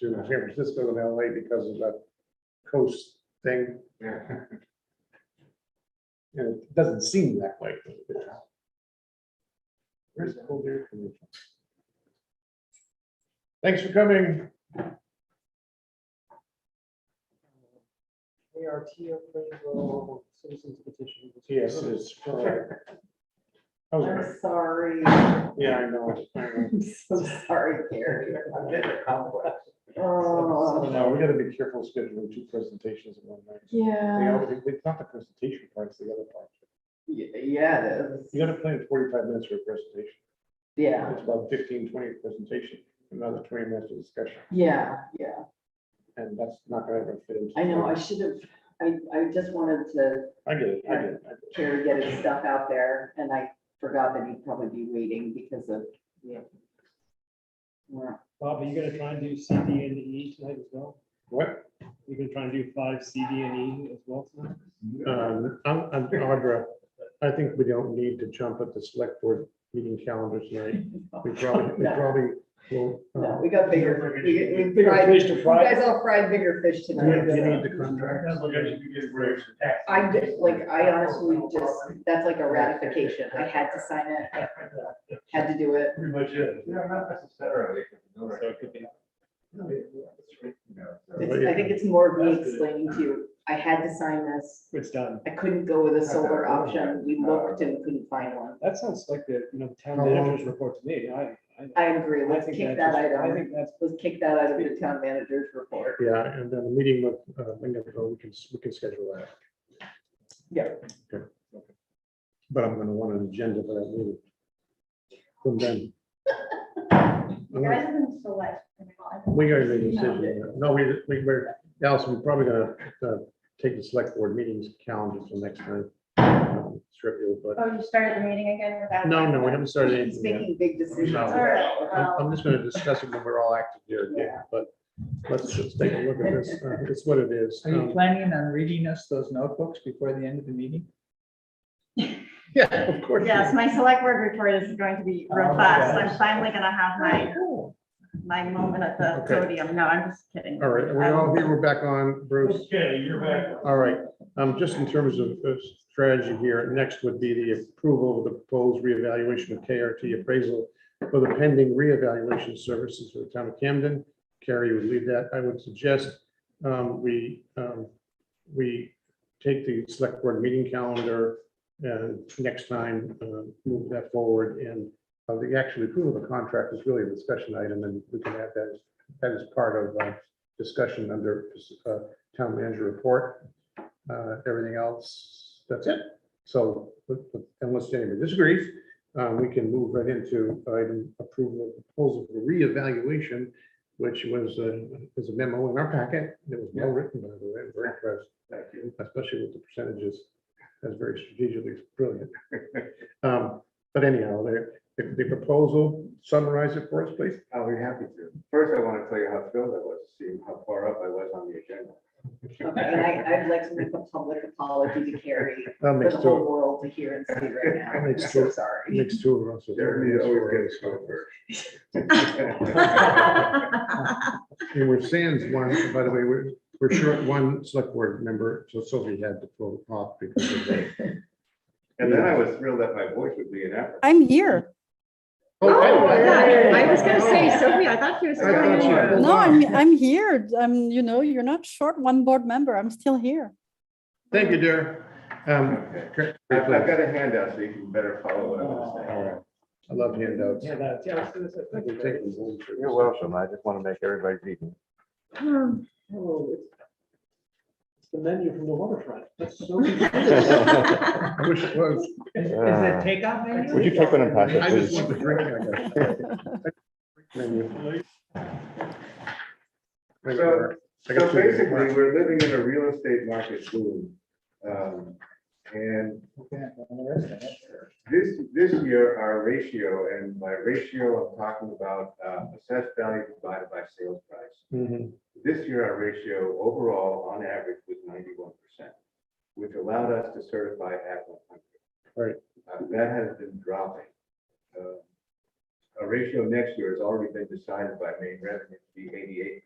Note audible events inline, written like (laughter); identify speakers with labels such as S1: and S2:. S1: to San Francisco and LA because of that coast thing. And it doesn't seem that way. Where's the whole beer coming from? Thanks for coming.
S2: ART approval, citizens petition.
S1: Yes, it's. correct. I was right.
S3: I'm sorry,
S1: Yeah, I know. I know.
S3: I'm so sorry, Gary.
S2: I'm getting a complex.
S3: Oh,
S1: No, we gotta be careful scheduling two presentations in one night. They
S3: yeah,
S1: all- It's not the presentation part, it's the other part.
S3: Y- yeah, it is,
S1: You gotta plan forty-five minutes for a presentation.
S3: yeah,
S1: It's about 15, 20 presentation, another twenty minutes of discussion,
S3: yeah, yeah,
S1: and that's not gonna ever fit into.
S3: I know, I should have, I, I just wanted to
S1: I get it, I get it. I get it.
S3: Carrie get his stuff out there, and I forgot that he'd probably be waiting because of.
S2: Yeah.
S3: Well,
S4: Bob, are you gonna try and do CD and E tonight as well?
S1: What?
S4: You're gonna try and do five CD and E as well tonight?
S1: Um, I'm, I'm Audra. I think we don't need to jump at the select board meeting calendar
S3: (laughs)
S1: tonight. We probably, we
S3: No.
S1: probably will. uh,
S3: No, we got bigger, we, we
S4: Bigger
S3: fried,
S4: fish to
S3: you
S4: fry.
S3: guys all fried bigger fish
S1: Do you do you
S3: tonight.
S1: need the contract?
S3: I just, like, I honestly just, that's like a ratification, I had to sign it, had to do it,
S5: Pretty much it.
S2: Yeah, not necessarily.
S5: So it could be.
S1: Oh,
S3: it's, I think it's more of me explaining to you, I had to sign this,
S4: It's done.
S3: I couldn't go with a solar option,
S4: Uh,
S3: we looked and couldn't find one.
S4: That sounds like the, you know, the town
S1: How long?
S4: manager's report to me. I, I.
S3: I agree,
S4: I
S3: let's
S4: think
S3: kick
S4: that's
S3: that
S4: just- I
S3: item,
S4: think that's,
S3: let's kick that out of the town manager's report.
S1: Yeah, and then the meeting with, uh, Winnebago, we can, we can schedule that.
S3: Yeah.
S1: Okay. But I'm gonna want an agenda for that meeting. From then.
S6: You guys have been select.
S1: We gotta make a decision. No, we, we, we're, Allison, we're probably gonna, uh, take the select board meetings calendar for next time. um, Strip you, but,
S6: Oh, you started the meeting again without.
S1: no, no, we haven't started
S3: He's
S1: anything yet.
S3: making big decisions.
S1: No.
S6: All right,
S1: I'm,
S6: well,
S1: I'm just gonna discuss it when we're all active here again, but let's just take a look at this. Uh, It's what it is.
S7: Are you
S1: Um,
S7: planning on reading us those notebooks before the end of the meeting?
S1: Yeah, of course.
S6: yes, my select word report is going to be
S1: Oh
S6: robust. I'm finally gonna have my, my moment at the
S1: Okay. Oh,
S6: podium. No, I'm just kidding.
S1: All right, are we all here? We're back on, Bruce.
S5: Okay, you're back.
S1: All right, um, just in terms of uh, strategy here, next would be the approval of the proposed reevaluation of KRT appraisal for the pending reevaluation services for the town of Camden. Carrie would lead that. I would suggest, um, we, um, we take the select board meeting calendar and next time, uh, move that forward and uh, the actual approval of the contract is really a discussion item and we can add that, that is part of, uh, discussion under, uh, town manager report. Uh, Everything else, that's it. So but- but unless anybody disagrees, uh, we can move right into item approval of proposal for reevaluation, which was, uh, is a memo in our packet. It was well written, by the way. I'm Very impressed,
S5: Thank you.
S1: especially with the percentages. That's very strategically brilliant. (laughs) Um, But anyhow, the, the the proposal, summarize it for us, please.
S5: I'll be happy to. First, I want to tell you how thrilled I was to see how far up I was on the agenda.
S3: Okay, And I, I'd like to make a public apology to Carrie
S1: That
S3: for
S1: makes
S3: the
S1: two,
S3: whole world to hear and see
S4: (laughs)
S3: right now. I'm
S1: Makes
S3: so
S1: two.
S3: sorry.
S1: makes two of us.
S5: Jeremy always gets to go
S6: All
S1: And we're sans one, by the way, we're, we're short one select board member, so Sophie had to pull off because of that.
S5: And then I was thrilled that my voice would be in Africa.
S8: I'm here.
S1: Oh, I-
S2: I was gonna say,
S1: Oh.
S6: Sophie, I thought you were
S1: I thought you pulled
S8: No,
S1: off.
S8: I'm, I'm here. I'm, you know, you're not short one board member. I'm still here.
S1: Thank you, dear. Um,
S5: Okay.
S1: Kurt,
S5: I've I've
S1: I
S5: got a handout so you can better follow what I'm
S4: All
S5: saying.
S4: right.
S1: love handouts.
S4: yeah, that's, yeah. I was gonna say,
S1: I
S4: thank you
S1: can
S4: very
S1: take
S4: much.
S1: them home for
S9: You're
S1: you.
S9: welcome. I just want to make everybody's evening.
S4: Oh, it's- It's the menu from the waterfront.
S9: (laughs)
S4: That's so.
S1: I wish it was.
S9: is it
S4: takeout
S9: Uh, Would you take one and pass
S1: I
S9: it,
S1: just
S9: please?
S1: want the drink, I guess. Menu. Wait,
S5: So-
S1: I
S5: So
S1: got two
S5: basically,
S1: different-
S5: we're living in a real estate market boom. Um, And This, this year, our ratio, and by ratio, I'm talking about uh, assessed value divided by sales price.
S1: Mhm.
S5: This year, our ratio overall, on average, was ninety-one percent, which allowed us to certify at one hundred. Uh,
S1: Right.
S5: That has been dropping. Uh, Our ratio next year has already been decided by main revenue to be eighty-eight